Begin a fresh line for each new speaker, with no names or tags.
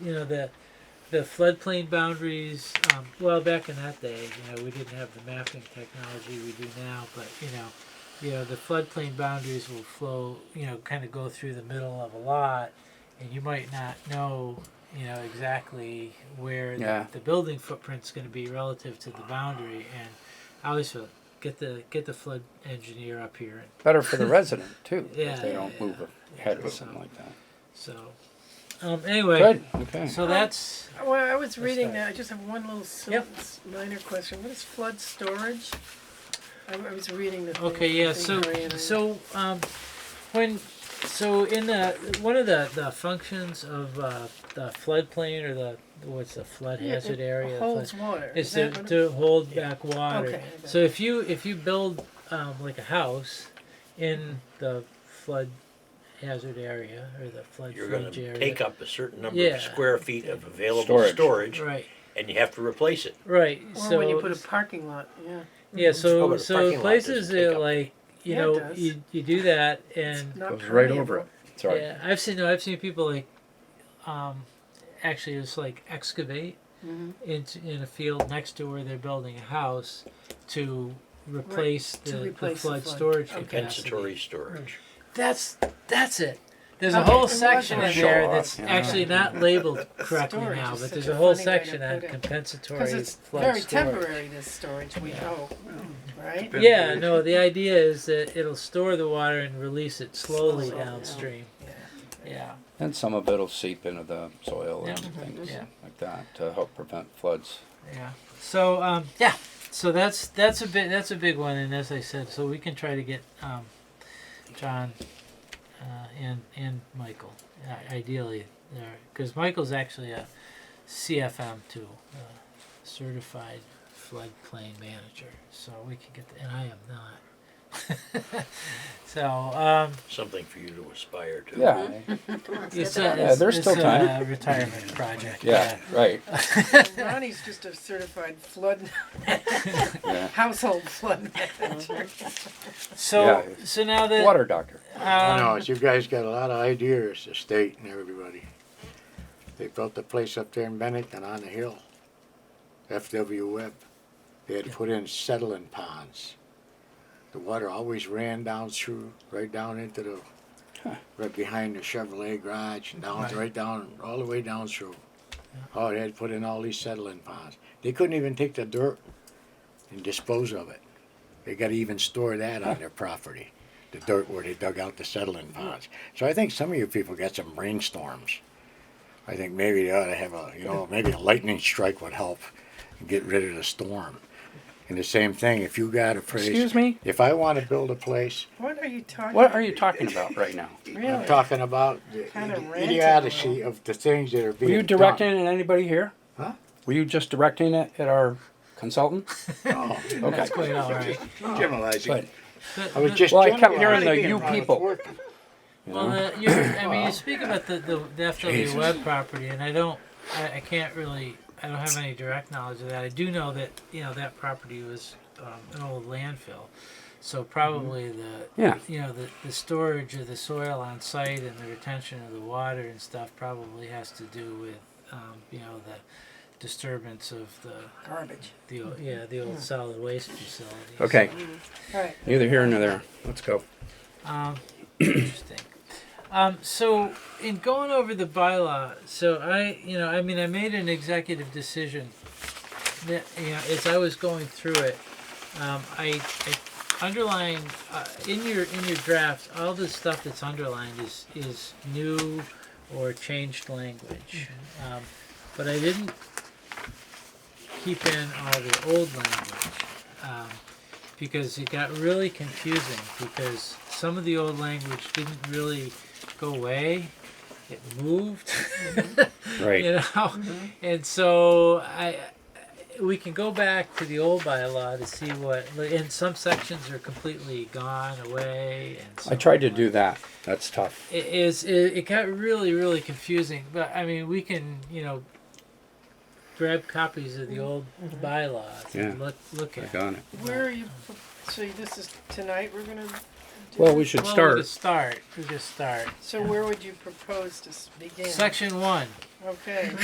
you know, the the floodplain boundaries. Um, well, back in that day, you know, we didn't have the mapping technology we do now, but you know, you know, the floodplain boundaries will flow, you know, kind of go through the middle of a lot, and you might not know, you know, exactly where
Yeah.
the, the building footprint's going to be relative to the boundary. And I always feel get the get the flood engineer up here, and
Better for the resident too,
Yeah,
if they
yeah,
don't
yeah.
move ahead or something like that.
so. Um, anyway,
Good, okay.
so that's
Well, I was reading
that?
that, I just have one little sil-
Yep.
s- minor question, what is flood storage? I I was reading the. thing,
Okay, yeah,
I think
so,
Marianne-
so, um, when, so in the, one of the, the functions of, uh, the floodplain or the, what's the flood
Yeah,
hazard
it
area?
Holds water.
Is to,
that what it-
to hold back water.
Okay, I
So if you, if you build, um, like a house in the flood hazard area or the flood
You're gonna
fringe area.
take up a certain number
Yeah.
of square feet of available
Storage.
storage
Right,
and you have to replace it.
right, so.
Or when you put a parking lot, yeah,
Yeah,
Oh,
so
but a
so
parking lot
places
doesn't
that
take up-
like you
Yeah, it
know
does.
you, you do that and
not
Goes right
permeable.
over it.
Sorry.
yeah I've seen no I've seen people like um actually it's like excavate
Mhm.
into in a field next to where they're building a house to replace,
to
the, the
replace the
flood
flood.
storage
Okay.
capacity.
Compensatory storage.
That's that's it. There's a
Okay,
whole
it
section in
wasn't-
there
Show off,
that's
yeah.
actually not labeled correctly
Storage
now,
is
but
such
there's
a
a whole
funny way to
section on
put it.
compensatory
Cause it's
flood
very
storage.
temporary, this storage, we hope, right?
Yeah, no, the idea is that it'll store the water and release it slowly
Slowly, yeah.
downstream. Yeah.
And some of it'll seep into the soil and
Yeah.
things
Yeah.
like that to help prevent floods.
Yeah. So um, yeah. So that's that's a bit that's a big one, and as I said, so we can try to get um, John uh, and and Michael uh, ideally there because Michael's actually a CFM too, uh, certified floodplain manager. So we can get, the, and I am not. so um,
Something for you to aspire to.
Yeah,
it's a,
Yeah,
it's,
there's
it's
still
a
time.
uh, retirement project.
yeah, right,
Ronnie's just a certified flood,
yeah.
household flood
Uh-huh.
manager.
So
Yeah.
so now that
Water doctor.
I know,
um,
you guys got a lot of ideas, the state and everybody. They built a place up there in Bennington on the hill, FW Webb. They had to put in settling ponds. The water always ran down through, right down into the, right behind the Chevrolet garage, and down,
Right.
right down, all the way down through. Oh, they had to put in all these settling ponds. They couldn't even take the dirt and dispose of it. They gotta even store that on their property the dirt where they dug out the settling ponds. So I think some of you people got some brainstorms. I think maybe they ought to have a, you know, maybe a lightning strike would help get rid of the storm. And the same thing, if you got a place.
Excuse me?
If I want to build a place,
What are you talking?
What are you talking about right now?
Really?
I'm talking about the
Kinda
idi-
ranted a
idiocy of the things that are
Were
being
you
done.
directing it at anybody here?
Huh?
Were you just directing it at our consultant?
No,
Oh, Okay.
quite all right.
Generalizing.
But,
But-
I was
but-
just.
Well, I kept
generalizing
hearing the you
about
people.
work.
you
Well,
know?
uh, you I mean, you speak about the, the, the FW
Jesus.
Web property, and I don't, I, I can't really, I don't have any direct knowledge of that. I do know that, you know, that property was um, an old landfill. So probably
Mm-hmm.
the,
Yeah.
you know, the, the storage of the soil on site and the retention of the water and stuff probably has to do with, um, you know, the disturbance of the,
Garbage.
the old, yeah, the old solid waste facility.
Mm-hmm. Okay,
All right,
neither here nor there. Let's go.
Um, interesting. Um, so in going over the bylaw, so I, you know, I mean, I made an executive decision that, you know, as I was going through it, um, I, I underlined uh, in your in your draft all the stuff that's underlined is is new or changed language, um, but I didn't keep in all the old language. Um, because it got really confusing because some of the old language didn't really go away it moved
Right.
you know and so i we can go back to the old bylaw to see what and some sections are completely gone away and
I
some
tried to
are-
do that. That's tough.
it is it, it got really really confusing but i mean we can you know grab copies of the old bylaws and
Yeah.
look look at
I got it.
where are you, so this is tonight, we're gonna
Well, we should
Well,
start.
We could start. We could start.
So where would you propose to s- begin?
Section one.
Okay.